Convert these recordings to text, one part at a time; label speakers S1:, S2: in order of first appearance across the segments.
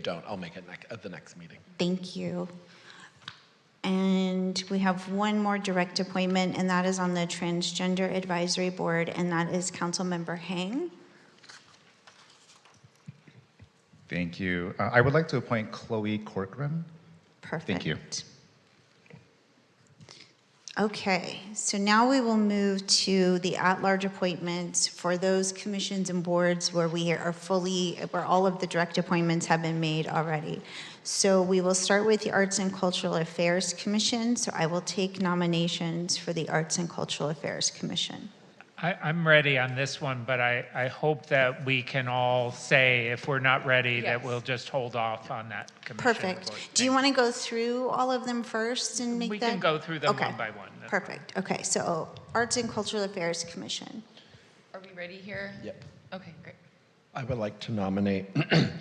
S1: don't, I'll make it nec- at the next meeting.
S2: Thank you. And we have one more direct appointment, and that is on the Transgender Advisory Board, and that is Councilmember Hang.
S3: Thank you. Uh, I would like to appoint Chloe Corcoran.
S2: Perfect.
S3: you.
S2: Okay, so now we will move to the at-large appointments for those commissions and boards where we are fully, where all of the direct appointments have been made already. So we will start with the Arts and Cultural Affairs Commission, so I will take nominations for the Arts and Cultural Affairs Commission.
S4: I, I'm ready on this one, but I, I hope that we can all say, if we're not ready, that we'll just hold off on that commission.
S2: Perfect.
S4: board.
S2: Do you want to go through all of them first and make
S4: We
S2: that?
S4: can go through them
S2: Okay.
S4: one by one. That's fine.
S2: Perfect. Okay, so Arts and Cultural Affairs Commission.
S5: Are we ready here?
S1: Yep.
S5: Okay, great.
S1: I would like to nominate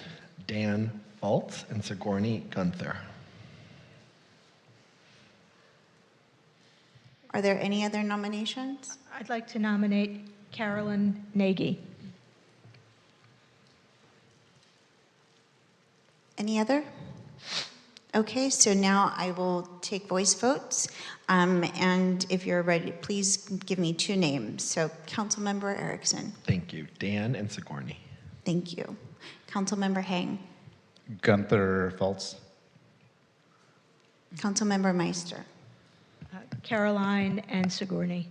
S1: Dan Baltz and Sigourney Gunther.
S2: Are there any other nominations?
S6: I'd like to nominate Carolyn Nagy.
S2: Any other? Okay, so now I will take voice votes. Um, And if you're ready, please give me two names. So Councilmember Erickson,
S1: Thank you, Dan and Sigourney.
S2: thank you. Councilmember Hang,
S3: Gunther Feltz.
S2: Councilmember Meister,
S6: Uh, Caroline and Sigourney.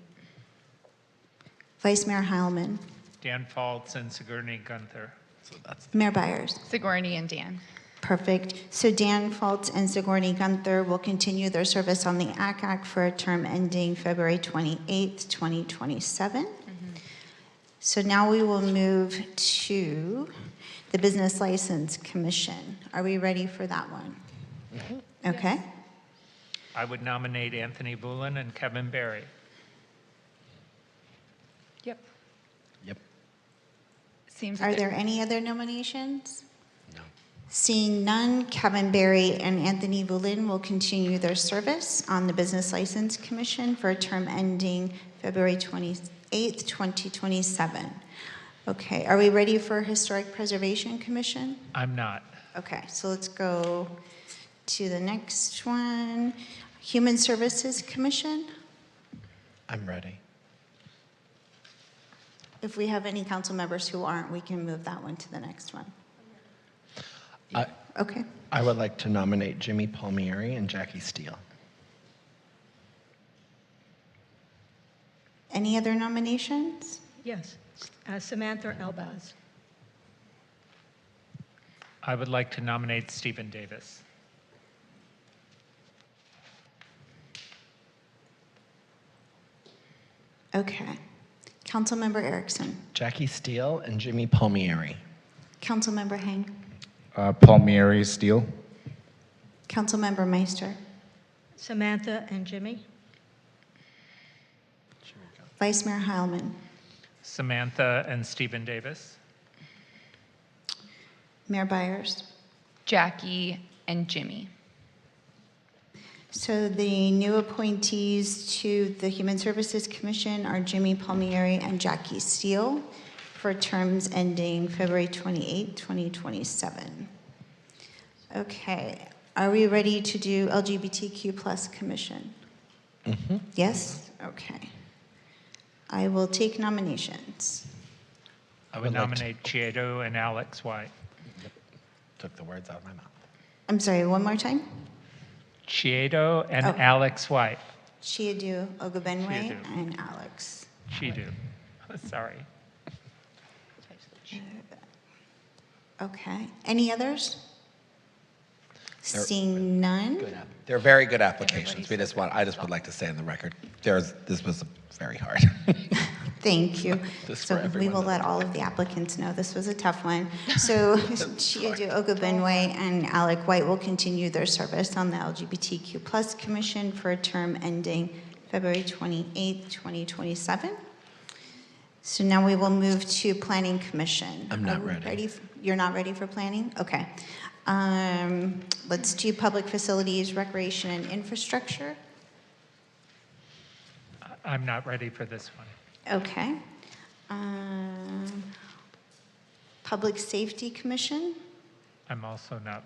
S2: Vice Mayor Heilman,
S4: Dan Faltz and Sigourney Gunther.
S1: So that's,
S2: Mayor Byers.
S5: Sigourney and Dan.
S2: Perfect. So Dan Fultz and Sigourney Gunther will continue their service on the ACAC for a term ending February 28th, 2027. So now we will move to the Business License Commission. Are we ready for that one? Okay.
S4: I would nominate Anthony Boulin and Kevin Barry.
S5: Yep.
S1: yep,
S5: Seems
S2: Are
S5: like
S2: there any other nominations?
S1: no.
S2: Seeing none, Kevin Barry and Anthony Boulin will continue their service on the Business License Commission for a term ending February 28th, 2027. Okay, are we ready for Historic Preservation Commission?
S4: I'm not.
S2: Okay, so let's go to the next one. Human Services Commission,
S1: I'm ready.
S2: if we have any council members who aren't, we can move that one to the next one.
S1: I,
S2: Okay,
S1: I would like to nominate Jimmy Palmieri and Jackie Steele.
S2: any other nominations?
S6: Yes, uh, Samantha Elbaz.
S4: I would like to nominate Stephen Davis.
S2: Okay. Councilmember Erickson.
S1: Jackie Steele and Jimmy Palmieri.
S2: Councilmember Hang.
S3: Uh, Palmieri Steele.
S2: Councilmember Meister.
S6: Samantha and Jimmy.
S2: Vice Mayor Heilman.
S4: Samantha and Stephen Davis.
S2: Mayor Byers.
S5: Jackie and Jimmy.
S2: So the new appointees to the Human Services Commission are Jimmy Palmieri and Jackie Steele for terms ending February 28, 2027. Okay, are we ready to do LGBTQ plus commission? Yes? Okay. I will take nominations.
S1: I
S4: I would
S1: like to-
S4: nominate Chiedo and Alex White.
S1: Took the words out of my mouth.
S2: I'm sorry, one more time?
S4: Chiedo and
S2: Oh.
S4: Alex White.
S2: Chiadu Ogunbenwe
S4: Chiadu.
S2: and Alex.
S4: Chiedo. Sorry.
S2: Okay. Any others?
S1: There-
S2: Seeing none?
S1: Good app. They're very good applications. We just want, I just would like to say on the record, there's, this was very hard.
S2: Thank you.
S1: This for
S2: So we
S1: everyone
S2: will
S1: that-
S2: let all of the applicants know this was a tough one. So Chiadu Ogunbenwe and Alec White will continue their service on the LGBTQ plus commission for a term ending February 28th, 2027. So now we will move to Planning Commission.
S1: I'm not
S2: Are we
S1: ready.
S2: f- You're not ready for planning? Okay. Um, Let's do Public Facilities, Recreation, and Infrastructure.
S4: I- I'm not ready for this one.
S2: Okay. Um, Public Safety Commission?
S4: I'm also not